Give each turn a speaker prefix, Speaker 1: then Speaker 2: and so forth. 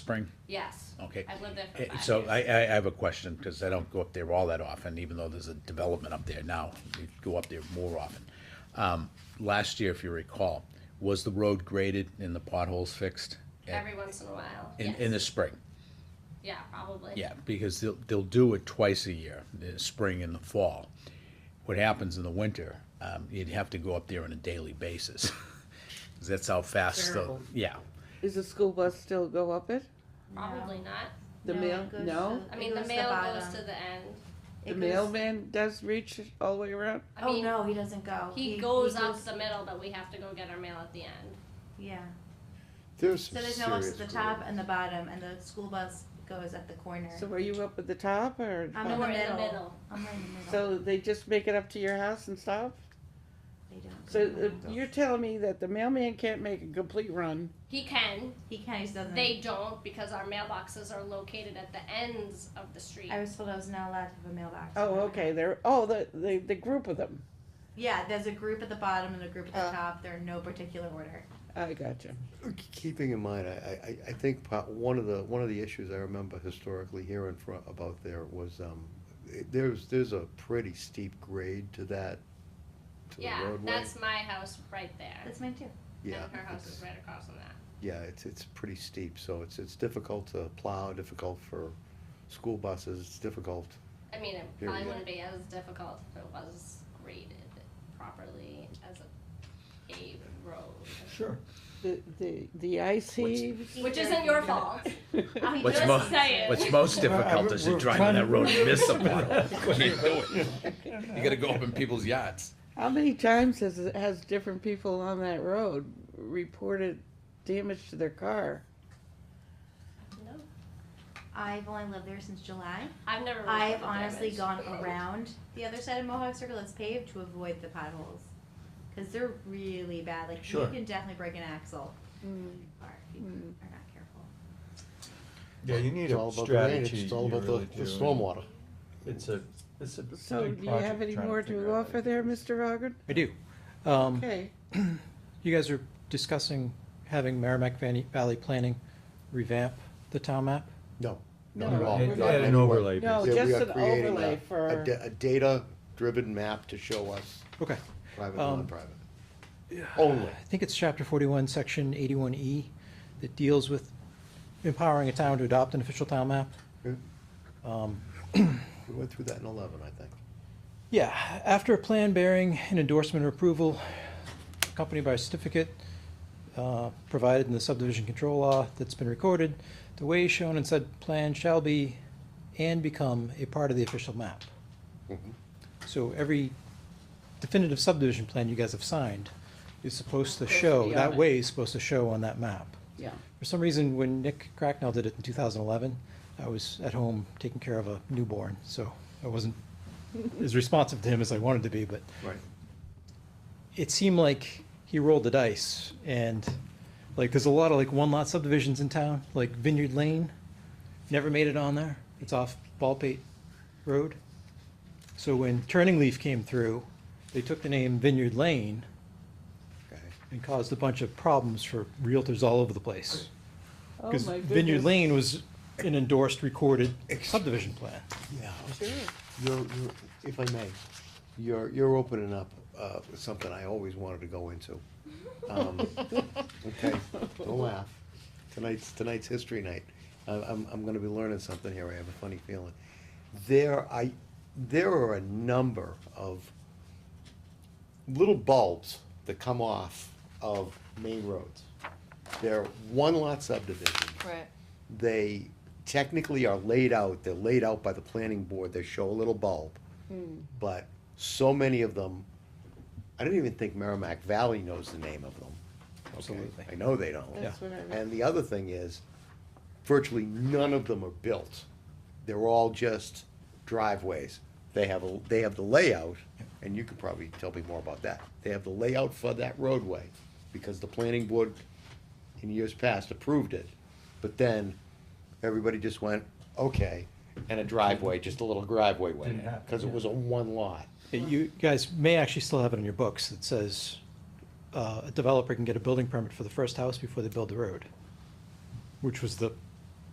Speaker 1: Spring?
Speaker 2: Yes.
Speaker 1: Okay.
Speaker 2: I've lived there for
Speaker 1: Eh,
Speaker 2: five
Speaker 1: So
Speaker 2: years.
Speaker 1: I, I I have a question, because I don't go up there all that often, even though there's a development up there now. We go up there more often. Um, Last year, if you recall, was the road graded and the potholes fixed? Eh,
Speaker 2: Every once in a while.
Speaker 1: In,
Speaker 2: yes.
Speaker 1: in the spring?
Speaker 2: yeah, probably.
Speaker 1: Yeah, because they'll, they'll do it twice a year, the spring and the fall. What happens in the winter, um, you'd have to go up there on a daily basis. 'Cause That's how fast, the
Speaker 3: Terrible.
Speaker 1: yeah.
Speaker 4: Is the school bus still go up it?
Speaker 2: Probably not.
Speaker 4: The
Speaker 5: No,
Speaker 4: mail?
Speaker 5: it goes
Speaker 4: No?
Speaker 5: to-
Speaker 2: I
Speaker 5: it
Speaker 2: mean, the
Speaker 5: goes to
Speaker 2: mail
Speaker 5: bottom.
Speaker 2: goes to the end.
Speaker 4: The
Speaker 5: It goes-
Speaker 4: mailman does reach all the way around?
Speaker 2: I
Speaker 5: Oh
Speaker 2: mean,
Speaker 5: no, he doesn't go.
Speaker 2: he, goes up the middle, but we have to go get our mail at the end.
Speaker 5: Yeah.
Speaker 6: There's
Speaker 5: So
Speaker 6: some
Speaker 5: there's no ups
Speaker 6: serious.
Speaker 5: at the top
Speaker 6: grades.
Speaker 5: and the bottom, and the school bus goes at the corner.
Speaker 4: So are you up at the top or?
Speaker 5: I'm
Speaker 2: No,
Speaker 5: in the
Speaker 2: we're in the
Speaker 5: middle.
Speaker 2: middle.
Speaker 5: I'm right in the middle.
Speaker 4: So they just make it up to your house and stop?
Speaker 5: They don't.
Speaker 4: So uh, you're telling me that the mailman can't make a complete run?
Speaker 2: He can.
Speaker 5: he kind of doesn't.
Speaker 2: They don't because our mailboxes are located at the ends of the street.
Speaker 5: I was told I was not allowed to have a mailbox.
Speaker 4: Oh, okay, they're, oh, the, the, the group of them.
Speaker 5: Yeah, there's a group at the bottom and a group at the
Speaker 4: Uh.
Speaker 5: top. They're in no particular order.
Speaker 4: I gotcha.
Speaker 6: Keeping in mind, I, I, I think po- one of the, one of the issues I remember historically hearing fro about there was, um, it- there's, there's a pretty steep grade to that, to the
Speaker 2: yeah,
Speaker 6: roadway.
Speaker 2: that's my house right there.
Speaker 5: That's mine too.
Speaker 6: Yeah,
Speaker 2: And her house
Speaker 6: it's-
Speaker 2: is right across from that.
Speaker 6: Yeah, it's, it's pretty steep, so it's, it's difficult to plow, difficult for school buses, it's difficult.
Speaker 2: I mean, it
Speaker 6: Here we
Speaker 2: probably
Speaker 6: go.
Speaker 2: wouldn't be as difficult if it was graded properly as a paved road.
Speaker 7: Sure.
Speaker 4: The, the, the ice
Speaker 6: What's-
Speaker 4: heaves.
Speaker 2: Which isn't your fault.
Speaker 5: I'm
Speaker 1: What's
Speaker 5: just
Speaker 1: mo-
Speaker 2: saying.
Speaker 1: What's most difficult is to
Speaker 7: We're
Speaker 1: drive on
Speaker 7: trying
Speaker 1: that
Speaker 7: to-
Speaker 1: road and miss a puddle. You Can't do it. You gotta go up in people's yachts.
Speaker 4: How many times has, has different people on that road reported damage to their car?
Speaker 2: No,
Speaker 5: I've only lived there since July.
Speaker 2: I've never. really
Speaker 5: I've
Speaker 2: been
Speaker 5: honestly
Speaker 2: damaged.
Speaker 5: gone around the other side of Mohawk Circle that's paved to avoid the potholes. Cause they're really bad, like you
Speaker 7: Sure.
Speaker 5: can definitely break an axle or if you are not careful.
Speaker 7: Yeah, you need
Speaker 6: It's all
Speaker 7: a
Speaker 6: about the drainage,
Speaker 7: strategy.
Speaker 6: It's all
Speaker 7: you
Speaker 6: about the,
Speaker 7: really
Speaker 6: the
Speaker 7: do.
Speaker 6: stormwater.
Speaker 7: It's a, it's a.
Speaker 4: So
Speaker 7: big
Speaker 4: do you have
Speaker 7: project
Speaker 4: any
Speaker 7: trying
Speaker 4: more
Speaker 7: figure
Speaker 4: to
Speaker 7: out
Speaker 4: offer
Speaker 7: how
Speaker 4: there, Mr. Rogard?
Speaker 8: I do. Um,
Speaker 4: Okay,
Speaker 8: You guys are discussing having Merrimack Valley Valley Planning revamp the town map?
Speaker 6: No,
Speaker 4: No,
Speaker 6: not at all.
Speaker 4: it-
Speaker 6: Not
Speaker 4: it-
Speaker 6: at
Speaker 7: an
Speaker 6: all.
Speaker 7: overlay
Speaker 6: Yeah,
Speaker 4: no,
Speaker 6: we
Speaker 4: just
Speaker 6: are
Speaker 4: an
Speaker 6: creating a-
Speaker 4: overlay
Speaker 6: A,
Speaker 4: for,
Speaker 6: da- a data-driven map to show us
Speaker 8: Okay.
Speaker 6: private,
Speaker 8: Um,
Speaker 6: non-private. Only.
Speaker 8: Uh, I think it's chapter forty-one, section eighty-one E, that deals with empowering a town to adopt an official town map.
Speaker 6: We went through that in eleven, I think.
Speaker 8: Yeah, after a plan bearing an endorsement or approval accompanied by a certificate uh, provided in the subdivision control law that's been recorded, the way shown in said plan shall be and become a part of the official map. So every definitive subdivision plan you guys have signed is supposed to show,
Speaker 4: be on
Speaker 8: that
Speaker 4: it.
Speaker 8: way is supposed to show on that map.
Speaker 4: yeah.
Speaker 8: For some reason, when Nick Cracknell did it in 2011, I was at home taking care of a newborn, so I wasn't as responsive to him as I wanted to be, but
Speaker 6: Right.
Speaker 8: it seemed like he rolled the dice and like there's a lot of like one lot subdivisions in town, like Vineyard Lane, never made it on there. It's off Ballpate Road. So when Turning Leaf came through, they took the name Vineyard Lane
Speaker 6: Okay.
Speaker 8: and caused a bunch of problems for realtors all over the place.
Speaker 4: Oh
Speaker 8: Because
Speaker 4: my
Speaker 8: Vineyard
Speaker 4: goodness.
Speaker 8: Lane was an endorsed, recorded subdivision plan.
Speaker 6: Yeah.
Speaker 4: Sure.
Speaker 6: You're, you're, if I may, you're, you're opening up, uh, something I always wanted to go into. Um, Okay, don't laugh. Tonight's, tonight's history night. I, I'm, I'm gonna be learning something here, I have a funny feeling. There, I, there are a number of little bulbs that come off of main roads. They're one lot subdivisions
Speaker 3: Right.
Speaker 6: they technically are laid out, they're laid out by the planning board, they show a little bulb.
Speaker 4: Hmm.
Speaker 6: But so many of them, I don't even think Merrimack Valley knows the name of them. okay?
Speaker 8: Absolutely.
Speaker 6: I know they don't.
Speaker 4: That's what I read.
Speaker 6: And the other thing is, virtually none of them are built. They're all just driveways. They have, a they have the layout, and you could probably tell me more about that. They have the layout for that roadway, because the planning board in years past approved it. But then, everybody just went, okay, and a driveway, just a little driveway went
Speaker 7: Didn't happen,
Speaker 6: because it
Speaker 7: yeah.
Speaker 6: was a one lot.
Speaker 8: Yeah, You guys may actually still have it in your books that says uh, a developer can get a building permit for the first house before they build the road, which was the